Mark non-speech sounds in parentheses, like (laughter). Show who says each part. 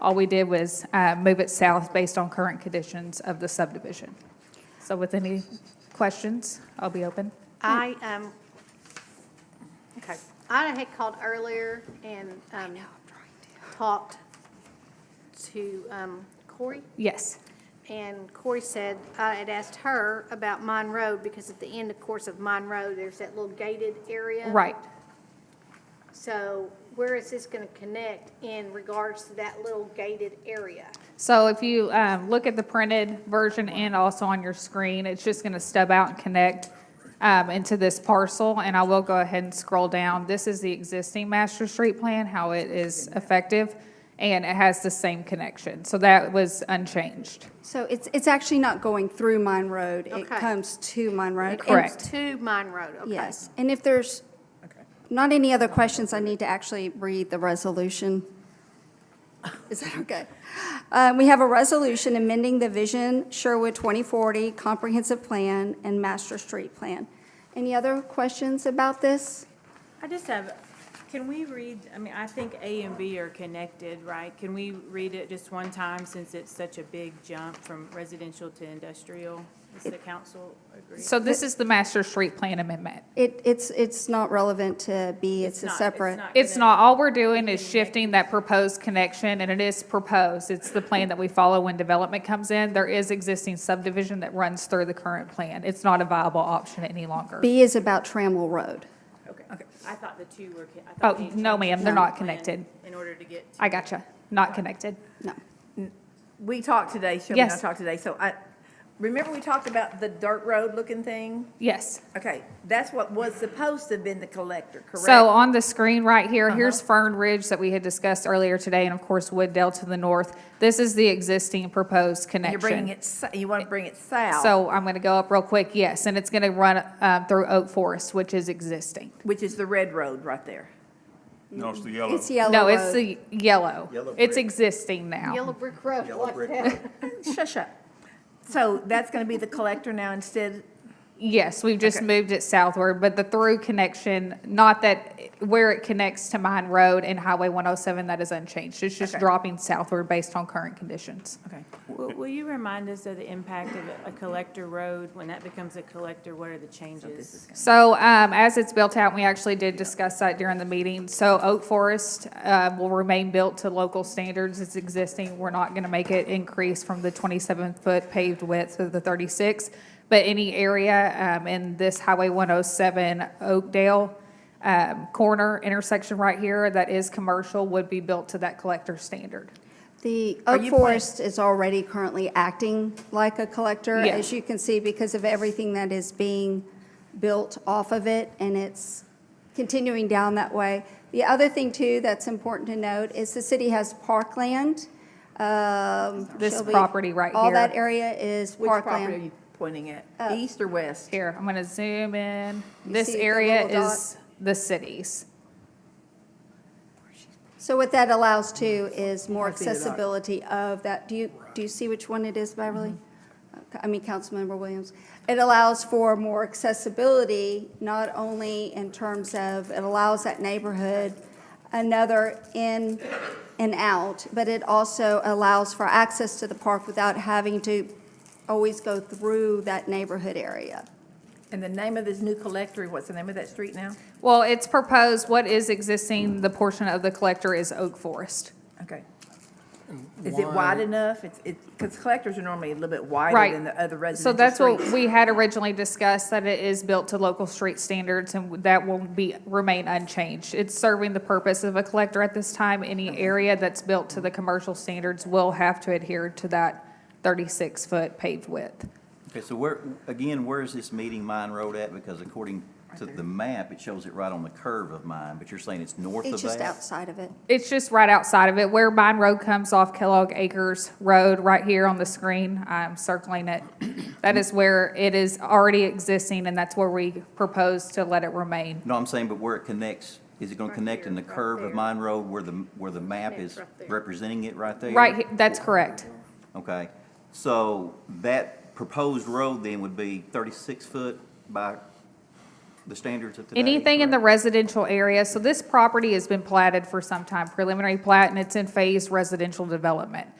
Speaker 1: All we did was uh, move it south based on current conditions of the subdivision. So with any questions, I'll be open.
Speaker 2: I, um, okay, I had called earlier and, um, talked to, um, Corey,
Speaker 1: Yes,
Speaker 2: and Corey said, I had asked her about Mine Road, because at the end, of course, of Mine Road, there's that little gated area.
Speaker 1: right.
Speaker 2: So where is this gonna connect in regards to that little gated area?
Speaker 1: So if you um, look at the printed version and also on your screen, it's just going to stub out and connect um, into this parcel, and I will go ahead and scroll down. This is the existing master street plan, how it is effective, and it has the same connection. So that was unchanged.
Speaker 3: So it's, it's actually not going through Mine Road. It
Speaker 2: Okay.
Speaker 3: comes to Mine Road. And-
Speaker 1: Correct.
Speaker 2: To Mine Road, okay.
Speaker 3: Yes. And if there's not any other questions, I need to actually read the resolution. Is that okay? Uh, We have a resolution amending the Vision Sherwood 2040 Comprehensive Plan and Master Street Plan. Any other questions about this?
Speaker 4: I just have, can we read, I mean, I think A and B are connected, right? Can we read it just one time since it's such a big jump from residential to industrial? Does the council agree?
Speaker 1: So this is the master street plan amendment.
Speaker 3: It, it's, it's not relevant to B. It's a
Speaker 4: not-
Speaker 3: separate.
Speaker 1: It's
Speaker 4: connected.
Speaker 1: not, all we're doing is shifting that proposed connection, and it is proposed. It's the plan that we follow when development comes in. There is existing subdivision that runs through the current plan. It's not a viable option any longer.
Speaker 3: B is about Trammell Road.
Speaker 4: Okay, I thought the two were. con- I
Speaker 1: Oh,
Speaker 4: thought we had
Speaker 1: no,
Speaker 4: changed
Speaker 1: ma'am, they're
Speaker 4: the
Speaker 1: not
Speaker 4: plan
Speaker 1: connected.
Speaker 4: In order to get. to-
Speaker 1: I gotcha. Not connected.
Speaker 3: No.
Speaker 5: We talked today, Shelby and I
Speaker 1: Yes.
Speaker 5: talked today, so I, remember we talked about the dirt road looking thing?
Speaker 1: Yes.
Speaker 5: Okay, that's what was supposed to have been the collector, correct?
Speaker 1: So on the screen right here, here's Fern Ridge that we had discussed earlier today, and of course Wooddale to the north. This is the existing proposed connection.
Speaker 5: You're bringing it, s- you want to bring it south?
Speaker 1: So I'm going to go up real quick, yes, and it's going to run uh, through Oak Forest, which is existing.
Speaker 5: Which is the red road right there.
Speaker 6: No, it's the yellow.
Speaker 3: It's Yellow
Speaker 1: No, it's
Speaker 3: Road.
Speaker 1: the yellow.
Speaker 7: Yellow
Speaker 1: It's
Speaker 7: brick.
Speaker 1: existing now.
Speaker 2: Yellow Brick Road,
Speaker 7: Yellow
Speaker 2: like
Speaker 7: brick
Speaker 2: that.
Speaker 7: road.
Speaker 5: Shush up. So that's going to be the collector now instead?
Speaker 1: Yes, we've just
Speaker 5: Okay.
Speaker 1: moved it southward, but the through connection, not that, where it connects to Mine Road and Highway 107, that is unchanged. It's just
Speaker 5: Okay.
Speaker 1: dropping southward based on current conditions.
Speaker 5: Okay.
Speaker 4: (laughs) Will will you remind us of the impact of a- a collector road? When that becomes a collector, what are the changes?
Speaker 1: So um, as it's built out, we actually did discuss that during the meeting. So Oak Forest uh, will remain built to local standards. It's existing. We're not going to make it increase from the 27-foot paved width of the 36. But any area um, in this Highway 107 Oakdale um, corner intersection right here that is commercial would be built to that collector standard.
Speaker 3: The
Speaker 5: Are
Speaker 3: Oak
Speaker 5: you plan-
Speaker 3: Forest is already currently acting like a collector,
Speaker 1: Yeah.
Speaker 3: as you can see, because of everything that is being built off of it, and it's continuing down that way. The other thing, too, that's important to note is the city has parkland. um,
Speaker 1: This
Speaker 3: Shelby,
Speaker 1: property right
Speaker 3: All
Speaker 1: here.
Speaker 3: that area is
Speaker 5: Which property are
Speaker 3: parkland.
Speaker 5: you pointing at? East or west?
Speaker 1: Here, I'm going to zoom in.
Speaker 3: You
Speaker 1: This
Speaker 3: see the
Speaker 1: area
Speaker 3: little dot?
Speaker 1: is the cities.
Speaker 3: So what that allows, too, is more
Speaker 5: see the dot.
Speaker 3: accessibility of that. Do you, do you see which one it is, Beverly?
Speaker 7: Mm-hmm.
Speaker 3: Okay, I mean, Councilmember Williams. It allows for more accessibility, not only in terms of, it allows that neighborhood another in and out, but it also allows for access to the park without having to always go through that neighborhood area.
Speaker 5: And the name of this new collector, what's the name of that street now?
Speaker 1: Well, it's proposed, what is existing, the portion of the collector is Oak Forest.
Speaker 5: Okay. Is it wide enough? It's, it's, because collectors are normally a little bit wider
Speaker 1: Right.
Speaker 5: than the other
Speaker 1: So
Speaker 5: residential
Speaker 1: that's what
Speaker 5: streets.
Speaker 1: we had originally discussed, that it is built to local street standards and that will be, remain unchanged. It's serving the purpose of a collector at this time. Any area that's built to the commercial standards will have to adhere to that 36-foot paved width.
Speaker 7: Okay, so where, again, where is this meeting Mine Road at? Because according to the map, it shows it right on the curve of Mine, but you're saying it's north of that?
Speaker 3: It's just outside of it.
Speaker 1: It's just right outside of it, where Mine Road comes off Kellogg Acres Road, right here on the screen, I'm circling it. That is where it is already existing, and that's where we propose to let it remain.
Speaker 7: No, I'm saying, but where it connects, is it gonna connect in the
Speaker 2: here, right
Speaker 7: curve
Speaker 2: there.
Speaker 7: of Mine Road where the, where the map
Speaker 2: Connects
Speaker 7: is
Speaker 2: right there.
Speaker 7: representing it right there?
Speaker 1: Right, he- that's correct.
Speaker 7: Okay, so that proposed road then would be thirty-six foot by the standards of today?
Speaker 1: Anything in the
Speaker 7: correct?
Speaker 1: residential area, so this property has been platted for some time, preliminary plat, and it's in phased residential development.